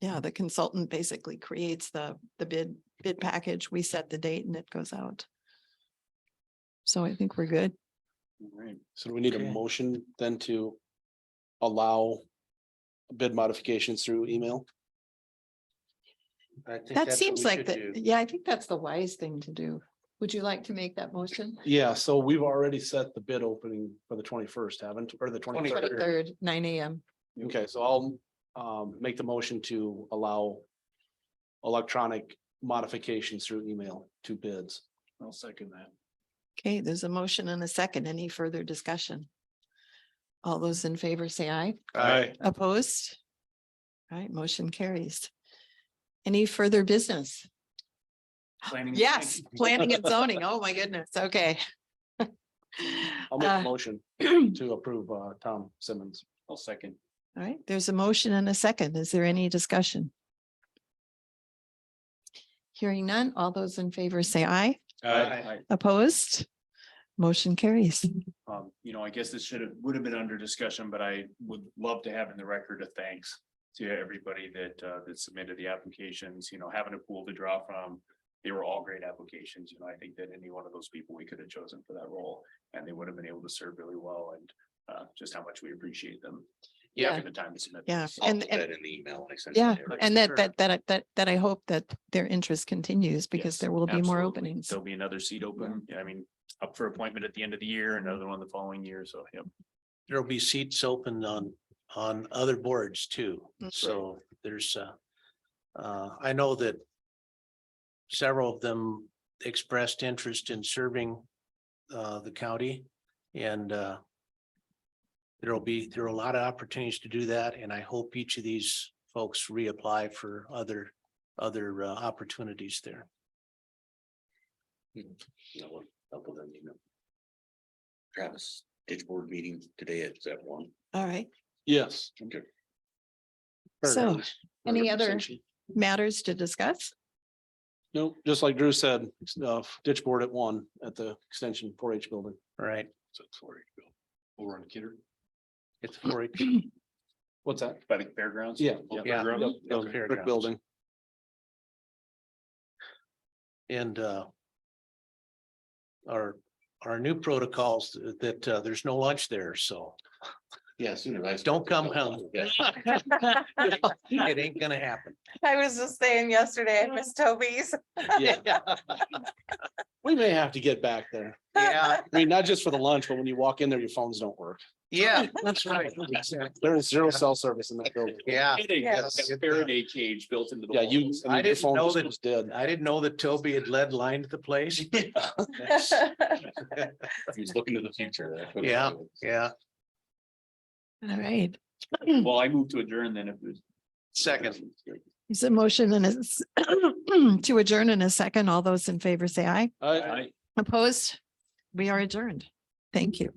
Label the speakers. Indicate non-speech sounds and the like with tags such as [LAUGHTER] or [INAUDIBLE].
Speaker 1: Yeah, the consultant basically creates the, the bid, bid package. We set the date and it goes out. So I think we're good.
Speaker 2: Right, so do we need a
Speaker 3: Okay.
Speaker 2: motion then to allow bid modifications through email?
Speaker 3: I think
Speaker 1: That
Speaker 3: that's what
Speaker 1: seems
Speaker 3: we
Speaker 1: like,
Speaker 3: should
Speaker 1: the
Speaker 3: do.
Speaker 1: yeah, I think that's the wise thing to do. Would you like to make that motion?
Speaker 2: Yeah, so we've already set the bid opening for the twenty-first, haven't, or the
Speaker 3: 23rd.
Speaker 2: twenty-third?
Speaker 1: Twenty-third, nine AM.
Speaker 2: Okay, so I'll um make the motion to allow electronic modifications through email to bids. I'll second that.
Speaker 1: Okay, there's a motion and a second. Any further discussion? All those in favor say aye.
Speaker 2: Aye.
Speaker 1: Opposed? All right, motion carries. Any further business?
Speaker 3: Planning and
Speaker 4: [LAUGHS]
Speaker 1: Yes,
Speaker 3: zoning.
Speaker 1: planning and zoning. Oh, my goodness. Okay. [LAUGHS]
Speaker 2: I'll make
Speaker 1: Uh,
Speaker 2: a motion
Speaker 1: [CLEARS THROAT]
Speaker 2: to approve uh Tom Simmons.
Speaker 3: I'll second.
Speaker 1: All right, there's a motion and a second. Is there any discussion? Hearing none, all those in favor say aye.
Speaker 3: Aye.
Speaker 1: Opposed? Motion carries.
Speaker 4: Um, you know, I guess this should have, would have been under discussion, but I would love to have in the record a thanks. To everybody that uh, that submitted the applications, you know, having a pool to draw from. They were all great applications, you know, I think that any one of those people we could have chosen for that role and they would have been able to serve really well and. Uh, just how much we appreciate them.
Speaker 1: Yeah.
Speaker 4: taking the time to submit.
Speaker 1: Yeah,
Speaker 4: this.
Speaker 3: I'll
Speaker 1: And-
Speaker 3: put
Speaker 1: and-
Speaker 3: that in the email. when I send it
Speaker 1: Yeah,
Speaker 3: to everybody.
Speaker 1: And that,
Speaker 4: Sure.
Speaker 1: that, that, that, that I hope that their interest continues because
Speaker 4: Yes,
Speaker 1: there will be more
Speaker 4: absolutely.
Speaker 1: openings.
Speaker 4: There'll be another seat open, I mean, up for appointment at the end of the year, another one the following year, so, yep.
Speaker 5: there'll be seats open on, on other boards too.
Speaker 1: Mhm.
Speaker 5: So there's, uh, uh, I know that several of them expressed interest in serving, uh, the county and, uh, there'll be, there are a lot of opportunities to do that, and I hope each of these folks reapply for other, other, uh, opportunities there.
Speaker 3: No, I'll- I'll put that in the email. Travis, ditch board meeting today at that one.
Speaker 1: All right.
Speaker 2: Yes.
Speaker 3: Okay.
Speaker 1: So any other
Speaker 2: Representation.
Speaker 1: matters to discuss?
Speaker 2: No, just like Drew said, uh, ditch board at one at the extension four H building.
Speaker 5: All Right?
Speaker 4: So it's where you go. Over on Kidder.
Speaker 5: It's for it.
Speaker 2: What's that?
Speaker 4: By the fairgrounds?
Speaker 2: Yeah.
Speaker 4: Old
Speaker 5: Yeah.
Speaker 4: fairgrounds?
Speaker 2: Yep,
Speaker 5: Yeah,
Speaker 2: yep, Brick
Speaker 5: fairgrounds.
Speaker 2: building.
Speaker 5: And uh. Our, our new protocols that uh, there's no lunch there, so
Speaker 3: Yeah, sooner. I-
Speaker 5: Don't come home.
Speaker 3: Yeah.
Speaker 5: it ain't gonna [LAUGHS] happen.
Speaker 6: I was just saying yesterday at Miss Toby's.
Speaker 2: Yeah. [LAUGHS] We may have to get back there.
Speaker 5: Yeah,
Speaker 2: I mean, not just for the lunch, but when you walk in there, your phones don't work.
Speaker 5: yeah, that's right.
Speaker 2: There is zero cell service in that building.
Speaker 5: Yeah,
Speaker 4: Kidding,
Speaker 6: Yes.
Speaker 4: that's a Faraday cage built into the.
Speaker 2: Yeah, you.
Speaker 4: walls.
Speaker 2: I mean,
Speaker 5: I
Speaker 2: your
Speaker 5: didn't
Speaker 2: phone
Speaker 5: know
Speaker 2: just
Speaker 5: that-
Speaker 2: was Dead.
Speaker 5: I didn't know that Toby had lead lined the [LAUGHS] place.
Speaker 6: [LAUGHS]
Speaker 5: That's-
Speaker 3: He's looking to the future. that's what it
Speaker 5: Yeah.
Speaker 3: is.
Speaker 5: Yeah,
Speaker 1: All right.
Speaker 4: Well, I moved to adjourn then if there's.
Speaker 5: second,
Speaker 1: There's a motion and a s- [CLEARS THROAT] to adjourn in a second. All those in favor say aye.
Speaker 2: I-
Speaker 4: I-
Speaker 1: Opposed? We are adjourned. Thank you.